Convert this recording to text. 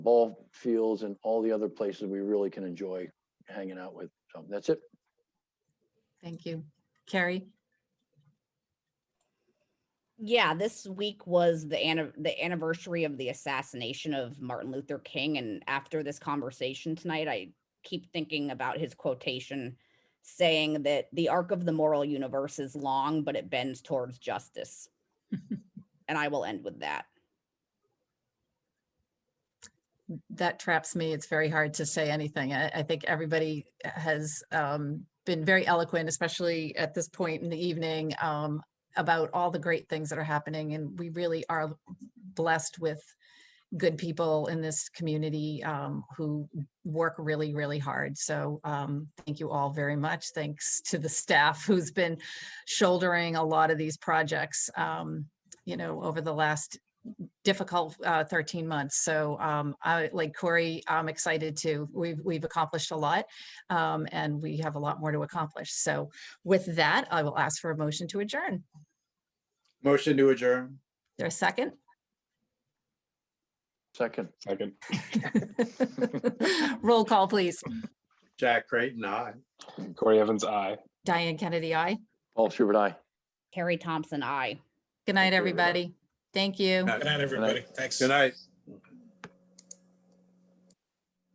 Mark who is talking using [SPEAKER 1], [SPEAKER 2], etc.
[SPEAKER 1] ball fields and all the other places we really can enjoy hanging out with. So that's it.
[SPEAKER 2] Thank you. Carrie?
[SPEAKER 3] Yeah, this week was the anni- the anniversary of the assassination of Martin Luther King, and after this conversation tonight, I keep thinking about his quotation saying that the arc of the moral universe is long, but it bends towards justice. and I will end with that.
[SPEAKER 2] that traps me. It's very hard to say anything. I, I think everybody has um, been very eloquent, especially at this point in the evening, um, about all the great things that are happening. And we really are blessed with good people in this community um, who work really, really hard. So um, thank you all very much. Thanks to the staff who's been shouldering a lot of these projects, um, you know, over the last difficult uh, 13 months. So um, I, like Corey, I'm excited to, we've, we've accomplished a lot um, and we have a lot more to accomplish. So with that, I will ask for a motion to adjourn. Is
[SPEAKER 4] Motion to adjourn.
[SPEAKER 2] There a second?
[SPEAKER 1] Second.
[SPEAKER 5] Second.
[SPEAKER 2] Roll call, please.
[SPEAKER 4] Jack Creighton, aye.
[SPEAKER 5] Corey Evans, I.
[SPEAKER 2] Diane Kennedy, aye.
[SPEAKER 1] Paul Schubert, aye.
[SPEAKER 3] Carrie Thompson, I.
[SPEAKER 2] Good night,
[SPEAKER 1] you, everybody.
[SPEAKER 2] everybody. Thank you.
[SPEAKER 4] Good
[SPEAKER 6] Good night, everybody. Thanks.
[SPEAKER 4] Good night.